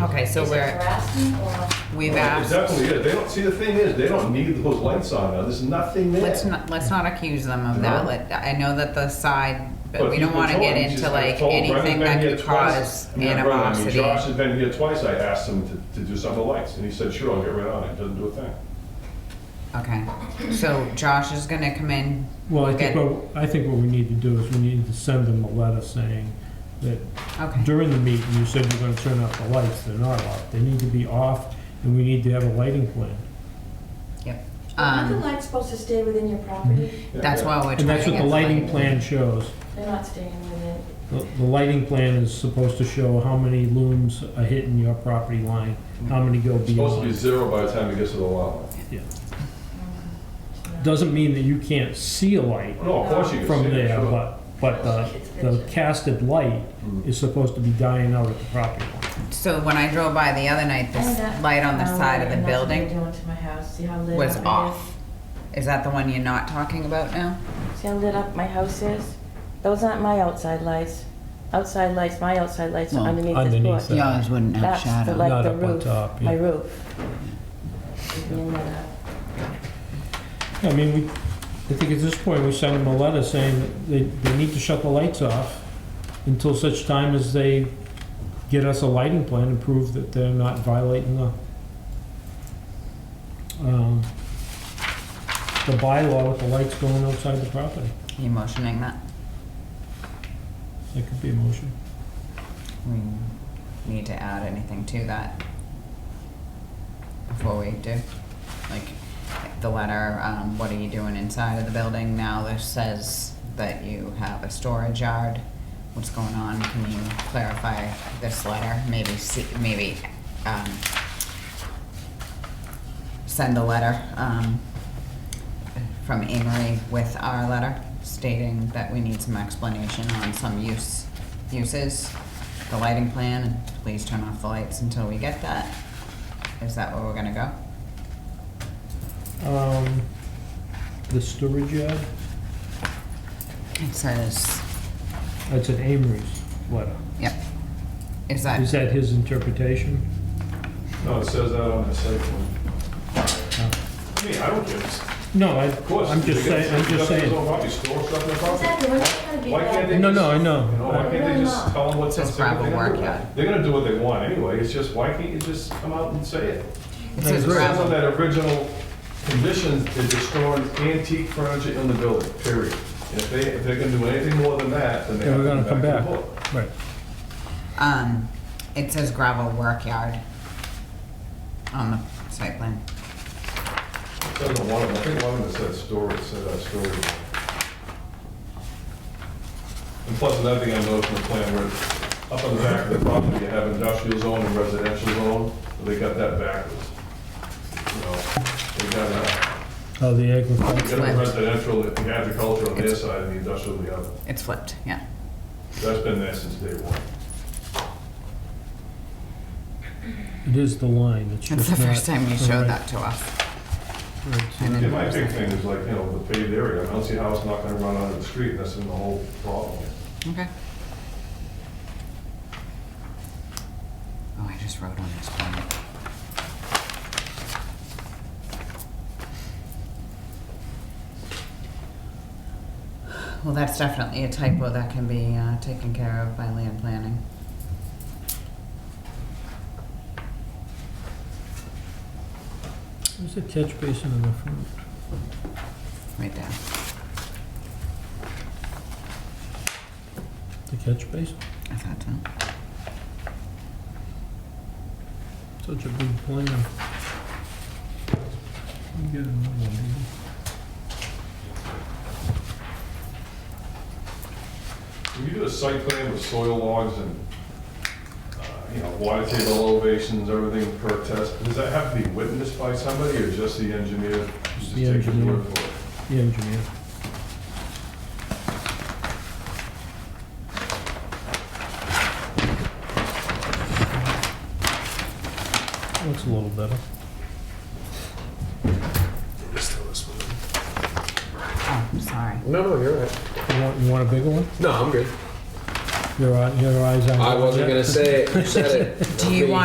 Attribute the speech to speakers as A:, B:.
A: Okay, so
B: Is it
A: we're, Um,
B: harassing or?
A: we've
C: Well, it
A: asked,
C: Definitely is. They don't, see, the thing is, they don't need those lights on now. There's nothing there.
A: let's not, let's not accuse them of that.
C: No.
A: Let- I know that the side,
C: But
A: but we
C: he's
A: don't
C: been
A: wanna get
C: told, he's
A: into
C: just
A: like
C: been told,
A: anything
C: Brendan's been
A: that
C: here
A: could
C: twice.
A: cause
C: I mean, not Brendan, I mean,
A: animosity.
C: Josh has been here twice. I asked him to, to do some of the lights, and he said, sure, I'll get right on it. Doesn't do a thing.
A: Okay, so Josh is gonna come in.
D: Well, I think
A: Okay.
D: what, I think what we need to do is we need to send them a letter saying that
A: Okay,
D: during the meeting, you said you're gonna turn off the lights, they're not off, they need to be off, and we need to have a lighting plan.
A: yep.
B: Aren't the
A: Um,
B: lights supposed to stay within your property?
C: Yeah,
A: that's
C: yeah.
A: why we're trying to
D: And that's what
A: get
D: the lighting
A: somebody-
D: plan shows.
B: They're not staying within.
D: The the lighting plan is supposed to show how many looms are hitting your property line, how many go
C: It's supposed to be
D: beyond.
C: zero by the time it gets to the lot line.
D: Doesn't mean that you can't see a light
C: No, of course you can see
D: from
C: it,
D: there,
C: sure.
D: but, but the, the casted light
C: Mm.
D: is supposed to be dying out at the property line.
A: So when I drove by the other night,
B: Oh,
A: this light on the side of the building
B: Doing to my house, see how lit up.
A: was
B: it is?
A: off. Is that the one you're not talking about now?
B: See how lit up my house is? Those aren't my outside lights. Outside lights, my outside lights
A: No,
B: are underneath this
D: underneath
B: porch.
D: that. Yours
A: wouldn't
B: That's the, like
D: Not
B: the
D: up on
B: roof,
D: top, yeah.
B: my roof. And, uh,
D: I mean, we, I think at this point, we send them a letter saying that they, they need to shut the lights off until such time as they get us a lighting plan and prove that they're not violating the, um, the bylaw with the lights going outside the property.
A: You motioning that?
D: That could be a motion.
A: We need to add anything to that before we do? Like, the letter, um, what are you doing inside of the building now that says that you have a storage yard? What's going on? Can you clarify this letter? Maybe see, maybe, um, send a letter, um, from Amory with our letter stating that we need some explanation on some use, uses, the lighting plan, and please turn off the lights until we get that. Is that where we're gonna go?
D: Um, the storage yard,
A: It says,
D: that's an Amory's letter.
A: yep. Is that,
D: Is that his interpretation?
C: No, it says that on the site plan. I mean, I don't care. Of
D: No, I,
C: course.
D: I'm just
C: they get-
D: saying, I'm just
C: they get
D: saying.
C: their own property, store stuff in their property.
B: Exactly, we're not gonna be
C: Why can't
B: that.
C: they-
D: No, no, I know.
C: You know, why can't they just tell them what's
A: It's
C: up?
A: a gravel work yard.
C: They're gonna do what they want anyway, it's just, why can't you just come out and say it?
A: it says
C: It says on
A: gravel,
C: that original condition is destroying antique furniture in the building, period. And if they, if they're gonna do anything more than that, then they
D: Yeah,
C: have
D: we're gonna
C: to
D: come
C: come back
D: back.
C: to the book.
D: Right.
A: um, it says gravel work yard on the site plan.
C: It says on one of them, I think one of them said storage, said uh, storage. And plus another thing I noticed in the plan, where up on the back of the property, you have industrial zone and residential zone, but they got that backwards. You know, they got,
D: Oh, the
C: uh,
D: agriculture.
C: they got the residential, the agriculture on their side and the industrial on the other.
A: It's flipped, yeah.
C: That's been there since day one.
D: It is the line,
A: It's
D: it's just
A: the
D: not-
A: first time you showed
D: Right,
A: that to us.
D: right, so
A: And
C: Yeah,
A: then-
C: my big thing is like, you know, the paved area, I don't see how it's not gonna run out of the street, that's been the whole problem.
A: Okay. Oh, I just wrote on this plan. Well, that's definitely a typo that can be uh, taken care of by land planning.
D: There's a catch basin in the front.
A: Right there.
D: The catch basin?
A: I thought so.
D: Such a big plan. You get another one, do you?
C: When you do a site plan with soil logs and, uh, you know, water table elevations, everything per test, does that have to be witnessed by somebody or just the engineer? Just
D: The
C: take his
D: engineer.
C: word for it?
D: The engineer. Looks a little better.
A: Oh, sorry.
E: No, no, you're right.
D: You want, you want a bigger one?
E: No, I'm good.
D: Your eye- your eyes on.
E: I wasn't gonna say it. You said it.
A: Do you
E: Okay.
A: want